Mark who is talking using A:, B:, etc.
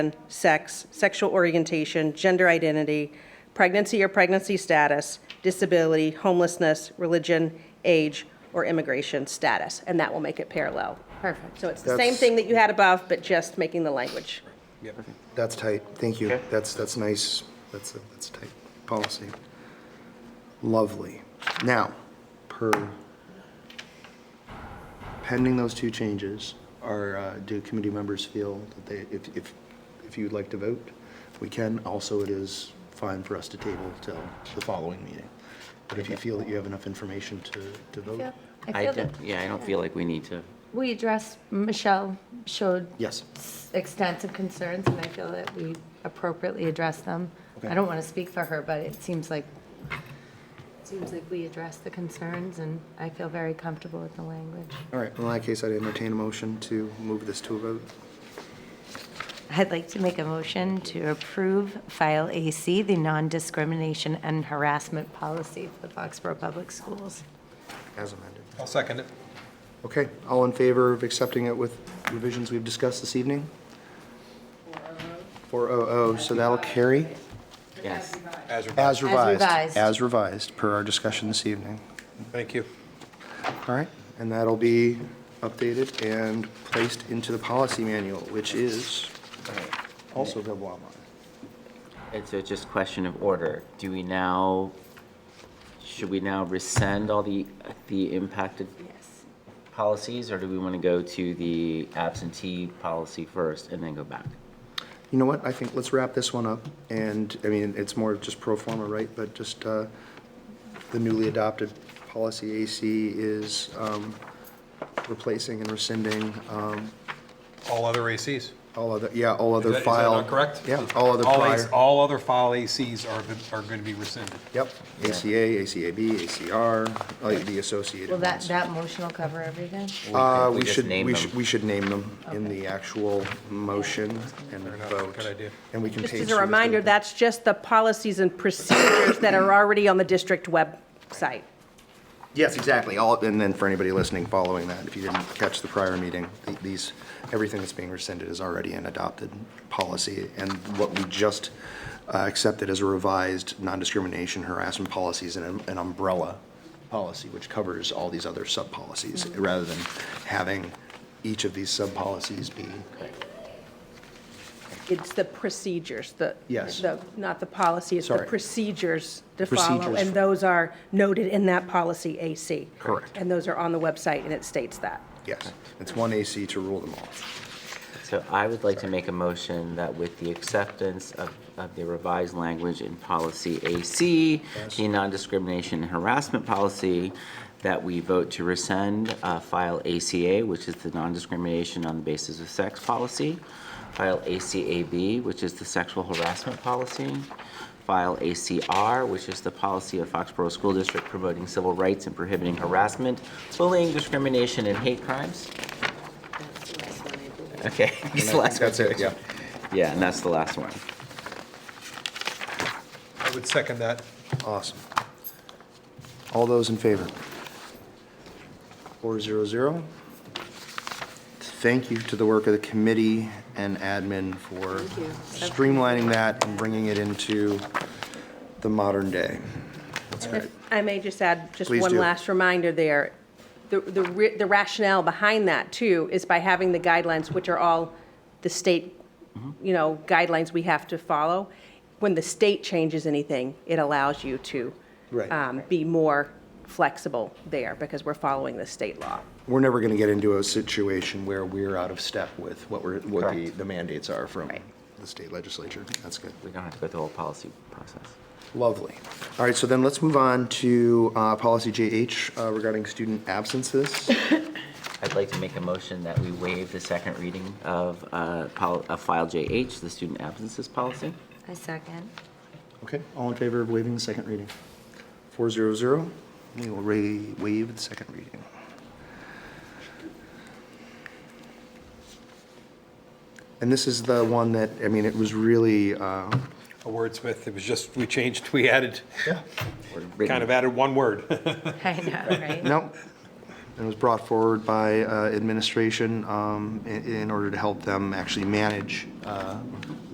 A: sex, sexual orientation, gender identity, pregnancy or pregnancy status, disability, homelessness, religion, age, or immigration status, and that will make it parallel.
B: Perfect.
A: So it's the same thing that you had above, but just making the language.
C: That's tight, thank you.
D: Okay.
C: That's, that's nice, that's, a that's tight policy. Lovely. Now, per, pending those two changes, are, uh, do committee members feel that they, if, if, if you'd like to vote, we can. Also, it is fine for us to table till the following meeting. But if you feel that you have enough information to, to vote?
B: I feel that
D: don't- Yeah, I don't feel like we need to.
B: we addressed, Michelle showed
C: Yes,
B: extensive concerns, and I feel that we appropriately addressed them. I
C: Okay.
B: don't want to speak for her, but it seems like, it seems like we addressed the concerns, and I feel very comfortable with the language.
C: all right. In that case, I'd entertain a motion to move this to a vote.
B: I'd like to make a motion to approve File AC, the non-discrimination and harassment policy for the Foxborough Public Schools.
C: As amended.
E: I'll second it.
C: Okay, all in favor of accepting it with revisions we've discussed this evening? 400, so that'll carry
D: Yes.
E: As
C: as revised.
B: revised.
C: As revised, per our discussion this evening.
E: Thank you.
C: All right, and that'll be updated and placed into the policy manual, which is uh, also available online.
D: It's a just question of order. Do we now, should we now rescind all the, the impacted
B: Yes.
D: policies? Or do we want to go to the absentee policy first and then go back?
C: You know what, I think, let's wrap this one up, and, I mean, it's more just pro forma, right? But just, uh, the newly adopted policy AC is um, replacing and rescinding um,
E: All other ACs.
C: all other, yeah, all
E: Is that-
C: other
E: is that
C: file.
E: not correct?
C: Yeah, all other
E: AC
C: prior.
E: All Oh. other file ACs are, are going to be rescinded.
C: Yep, ACA, ACAB, ACR, like the associated
B: Well, that,
C: ones.
B: that motion will cover everything?
C: Uh,
D: We
C: we
D: just
C: should,
D: name
C: we
D: them.
C: should, we should name them in the actual motion and
E: enough,
C: vote.
E: good idea.
C: And we can page.
A: Just as
C: through
A: a
C: this
A: reminder,
C: later.
A: that's just the policies and procedures that are already on the district website.
C: Yes, exactly. All, and then for anybody listening following that, if you didn't catch the prior meeting, th- these, everything that's being rescinded is already an adopted policy. And what we just uh, accepted as a revised non-discrimination harassment policy is an an umbrella policy, which covers all these other sub-policies, rather than having each of these sub-policies be,
A: It's the procedures, the.
C: Yes.
A: the- Not the policy, it's the
C: Sorry.
A: procedures to follow.
C: Procedures.
A: And those are noted in that policy AC.
C: Correct.
A: And those are on the website, and it states that.
C: yes, it's one AC to rule them all.
D: So I would like to make a motion that with the acceptance of, of the revised language in policy AC, the non-discrimination and harassment policy, that we vote to rescind uh, file ACA, which is the non-discrimination on the basis of sex policy, file ACAB, which is the sexual harassment policy, file ACR, which is the policy of Foxborough School District promoting civil rights and prohibiting harassment, bullying, discrimination, and hate crimes. Okay. it's
C: And
D: the
C: I
D: last
C: think
D: one.
C: That's it, yeah.
D: Yeah, and that's the last one.
E: I would second that.
C: Awesome. All those in favor? Four zero zero. Thank you to the work of the committee and admin for streamlining that and bringing it into the modern day.
A: If I may just add, just
C: Please
A: one
C: do.
A: last reminder there. The the ri- the rationale behind that, too, is by having the guidelines, which are all the state,
C: Mm-hmm.
A: you know, guidelines we have to follow. When the state changes anything, it allows you to
C: Right.
A: um, be more flexible there, because we're following the state law.
C: We're never going to get into a situation where we're out of step with what we're, what the
D: Correct.
C: the mandates are from
A: Right.
C: the state legislature. That's good.
D: We don't have to go through the whole policy process.
C: Lovely. All right, so then let's move on to uh, policy JH uh, regarding student absences.
D: I'd like to make a motion that we waive the second reading of, uh, pol- of file JH, the student absences policy.
B: I second.
C: Okay, all in favor of waiving the second reading? Four zero zero. We will ra- waive the second reading. And this is the one that, I mean, it was really, uh,
E: A wordsmith, it was just, we changed, we added,
C: yeah,
D: Or written-
E: kind of added one word.
B: I know, right?
C: no, and was brought forward by uh, administration um, in in order to help them actually manage uh,